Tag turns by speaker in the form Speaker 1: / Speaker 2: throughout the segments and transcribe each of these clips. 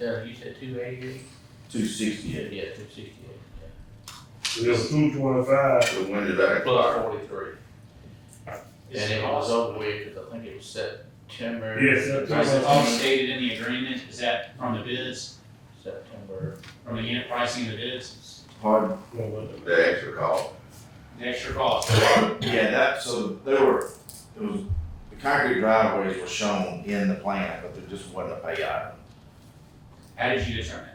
Speaker 1: Yeah, you said two eighty-eight?
Speaker 2: Two sixty-eight.
Speaker 1: Yeah, two sixty-eight.
Speaker 3: It was two twenty-five.
Speaker 2: So when did I
Speaker 1: Plus
Speaker 2: acquire?
Speaker 1: forty-three. And it was over with, because I think it was September.
Speaker 3: Yes, September.
Speaker 4: Is it all stated in the agreement, is that from the bids,
Speaker 1: September,
Speaker 4: from the unit pricing of the bids,
Speaker 2: Pardon?
Speaker 3: Well,
Speaker 2: The extra call.
Speaker 4: the extra cost?
Speaker 5: Yeah, that, so there were, it was, the concrete driveways were shown in the plan, but there just wasn't a payout.
Speaker 4: How did you determine?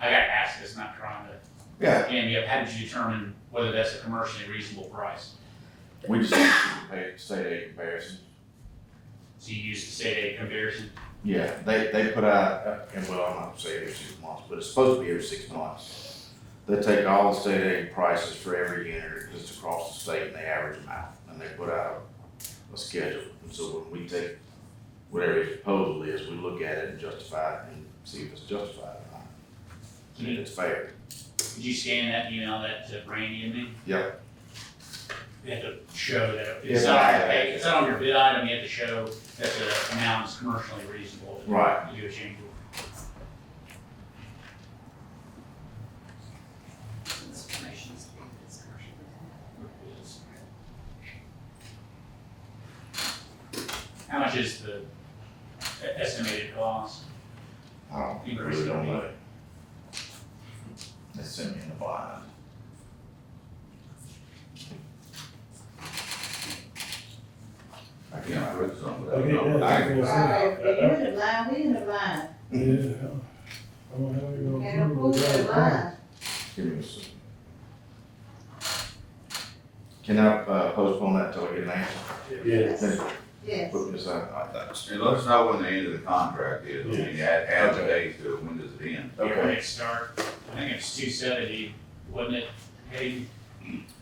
Speaker 4: I got asked this, not trying to,
Speaker 5: Yeah,
Speaker 4: and yet, how did you determine whether that's a commercially reasonable price?
Speaker 5: we just paid state aid comparison.
Speaker 4: So you used the state aid comparison,
Speaker 5: Yeah, they, they put out, uh, and well, I'm not saying every six months, but it's supposed to be every six months. They take all the state aid prices for every unit just across the state and they average them out, and they put out a schedule. And so when we take whatever his proposal is, we look at it and justify it and see if it's justified or not, and if it's fair.
Speaker 4: did you scan that, email that to Brandy and me?
Speaker 5: Yep.
Speaker 4: You have to show that,
Speaker 5: Yeah.
Speaker 4: it's not, on your pay- it's not on your bid item, you have to show that the amount is commercially reasonable.
Speaker 5: Right.
Speaker 4: You do a change order.
Speaker 6: This information is being discussed.
Speaker 4: How much is the estimated cost?
Speaker 5: I don't, Uh, we really don't know. They sent me in the blind.
Speaker 2: I can't put something
Speaker 3: I get
Speaker 2: without.
Speaker 3: that. Yeah.
Speaker 7: Oh,
Speaker 2: I-
Speaker 7: you're in the line, we in the line,
Speaker 3: Yeah. I don't have it on
Speaker 7: and of
Speaker 3: Google,
Speaker 7: course, the
Speaker 3: but I-
Speaker 7: line.
Speaker 5: Give me a second. Can I uh, postpone that till I get an answer?
Speaker 3: Yeah.
Speaker 7: Yes,
Speaker 5: Then
Speaker 7: yes.
Speaker 5: put me aside.
Speaker 2: And let us know when the end of the contract is, I mean, add, add the days to it, when does it end?
Speaker 4: When it start, I think it's two seventy, wasn't it, Hayden?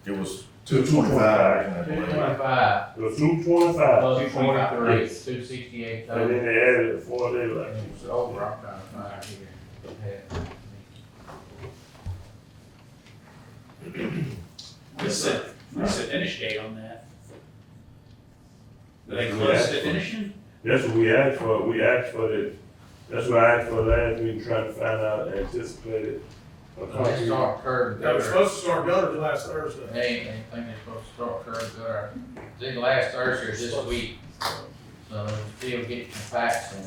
Speaker 5: It was
Speaker 3: Two
Speaker 5: two twenty-five, I
Speaker 1: two
Speaker 5: believe.
Speaker 1: twenty-five,
Speaker 3: It was two twenty-five,
Speaker 1: plus
Speaker 4: 245.
Speaker 1: forty-three, it's two sixty-eight
Speaker 3: and
Speaker 1: total.
Speaker 3: then they added it four days like.
Speaker 1: And it was over, I'm trying to find here.
Speaker 4: What's the, what's the finish date on that? Are they close to finishing?
Speaker 3: That's what we asked for, we asked for the, that's what I asked for last meeting, trying to find out anticipated. a
Speaker 1: They
Speaker 3: concrete-
Speaker 1: start curb
Speaker 8: They were
Speaker 1: gutter,
Speaker 8: supposed to start gutters last Thursday.
Speaker 1: they ain't, they think they're supposed to start curb gutter, I think last Thursday or this week. So they're still getting some facts in,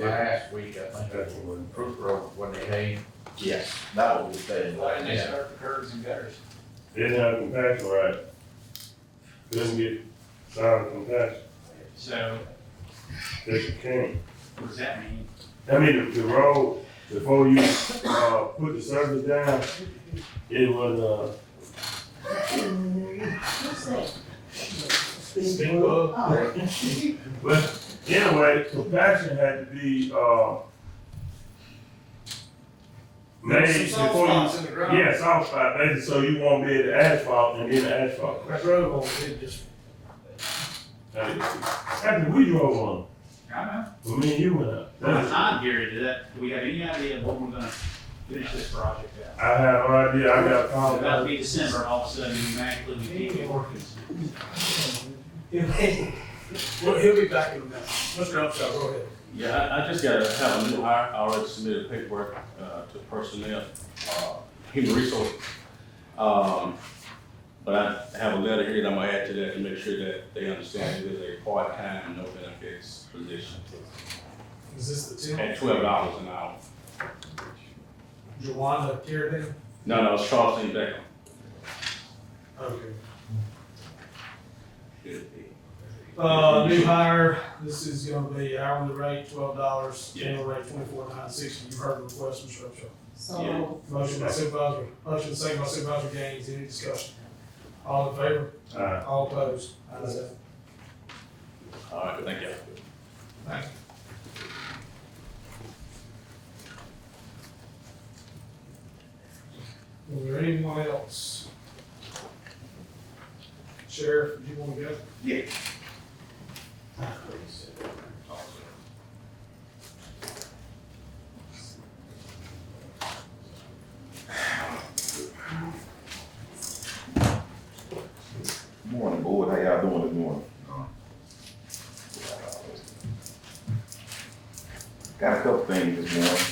Speaker 1: last week, I think, that's when Proof Road, when they had
Speaker 5: Yes, that was the day.
Speaker 4: Why didn't they
Speaker 1: Yeah.
Speaker 4: start the curves and gutters?
Speaker 3: They Didn't have compassion, right? Didn't get sound compassion,
Speaker 4: So,
Speaker 3: they can't.
Speaker 4: what does that mean?
Speaker 3: I mean, the, the road, before you, uh, put the surface down, it was, uh,
Speaker 7: What's that?
Speaker 8: Speak up.
Speaker 7: Oh,
Speaker 3: but anyway, compaction had to be, uh, made
Speaker 8: Some soft
Speaker 3: before you,
Speaker 8: spots in the ground.
Speaker 3: yeah, soft spot, basically, so you won't be at the asphalt and then the asphalt.
Speaker 8: That road won't be just,
Speaker 3: After we drove on,
Speaker 4: I don't know.
Speaker 3: when me and you went out.
Speaker 4: From a
Speaker 3: That's-
Speaker 4: time period, did that, do we have any idea of what we're gonna finish this project at?
Speaker 3: I have no idea, I got a
Speaker 4: It's
Speaker 3: problem.
Speaker 4: about to be December, all of a sudden, you magically, we can't get workers.
Speaker 8: he'll, he'll be back in a minute. Mr. Upshaw, go ahead.
Speaker 9: Yeah, I, I just gotta have a new hire, I already submitted paperwork, uh, to personnel, uh, human resource. Um, but I have a letter here that I'm gonna add to that to make sure that they understand it is a part-time, no benefits position
Speaker 8: Is this the two?
Speaker 9: at twelve dollars an hour.
Speaker 8: Jawanda Tierney?
Speaker 9: No, no, it's Charles Lee Beckham.
Speaker 8: Okay. Uh, new hire, this is gonna be hourly rate, twelve dollars, annual rate, twenty-four nine sixty. You've heard the request, Mr. Upshaw.
Speaker 7: so,
Speaker 8: Motion by Supervisor, motion second by Supervisor Gaines, any discussion? All in favor?
Speaker 3: Alright.
Speaker 8: All opposed? Ayes have it.
Speaker 9: All right, thank you.
Speaker 8: Is there anyone else? Sheriff, do you want to go?
Speaker 5: Yeah.
Speaker 2: Morning, boy, how y'all doing this morning?
Speaker 5: Got a couple things this morning.